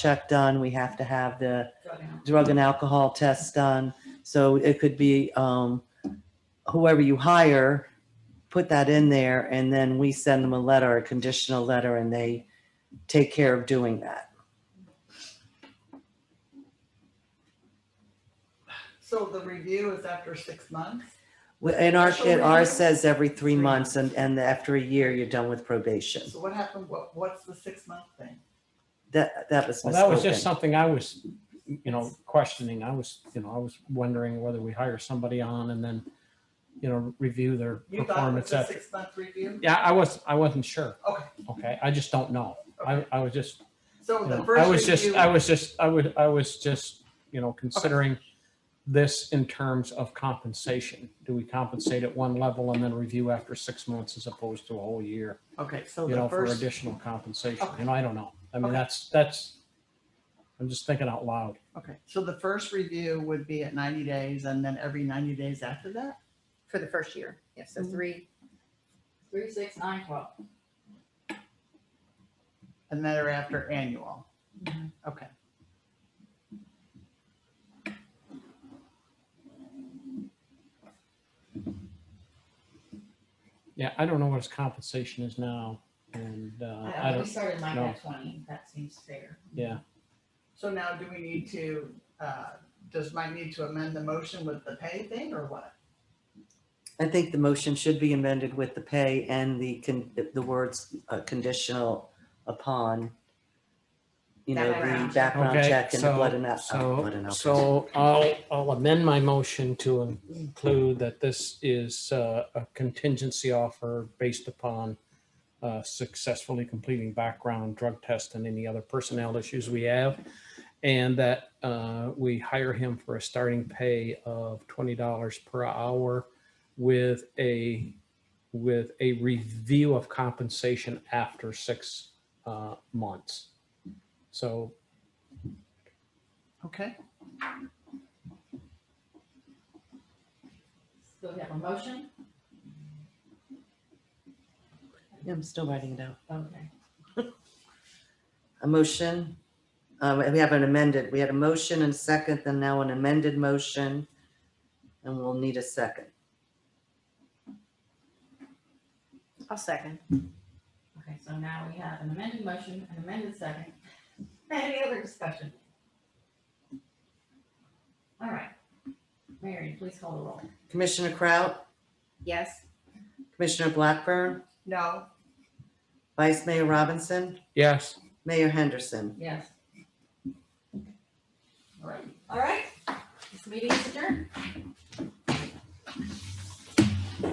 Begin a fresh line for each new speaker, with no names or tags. check done. We have to have the drug and alcohol test done. So it could be um, whoever you hire, put that in there, and then we send them a letter, a conditional letter, and they take care of doing that.
So the review is after six months?
Well, And our,
So
and
we-
ours says every three
Three
months, and, and after a year, you're done with probation.
So what happened, what, what's the six month thing?
That, that was
Well, that was just
misspoken.
something I was, you know, questioning. I was, you know, I was wondering whether we hire somebody on and then, you know, review their
You thought it
performance
was a
after.
six month review?
Yeah, I was, I wasn't sure.
Okay.
Okay, I just don't know. I, I was just,
So
you
the
know, I was
first
just,
review,
I was just, I would, I was just, you know, considering this in terms of compensation. Do we compensate at one level and then review after six months as opposed to a whole year?
okay, so
you know,
the
for
first,
additional compensation.
Okay.
You know, I don't know. I mean,
Okay.
that's, that's, I'm just thinking out loud.
okay, so the first review would be at ninety days and then every ninety days after that?
for the first year. Yeah, so
Mm-hmm.
Mhm.
three. Three, six, nine, twelve.
And then they're after annual?
Mhm.
Okay.
Yeah, I don't know what his compensation is now. And, uh, I
I, we
don't,
started mine
no.
at twenty, that seems fair.
yeah.
So now do we need to, uh, does Mike need to amend the motion with the pay thing or what?
I think the motion should be amended with the pay and the, con- the words uh, conditional upon, you know, the
Background check.
background
Okay,
check and the
so-
blood and al- uh, blood
So,
and alcohol.
so I'll, I'll amend my motion to include that this is uh, a contingency offer based upon uh, successfully completing background drug test and any other personnel issues we have. And that uh, we hire him for a starting pay of twenty dollars per hour with a, with a review of compensation after six uh, months. So
Okay,
So we have a motion?
Yeah, I'm still writing it out.
Okay.
A motion, um, we have an amended, we had a motion and second, and now an amended motion. And we'll need a second.
I'll second. Okay, so now we have an amended motion, an amended second. Any other discussion? All right. Mary, please call the roll.
Commissioner Kraut,
Yes.
Commissioner Blackburn,
no,
Vice Mayor Robinson,
Yes,
Mayor Henderson.
Yes.
all right.
All right. This meeting is adjourned.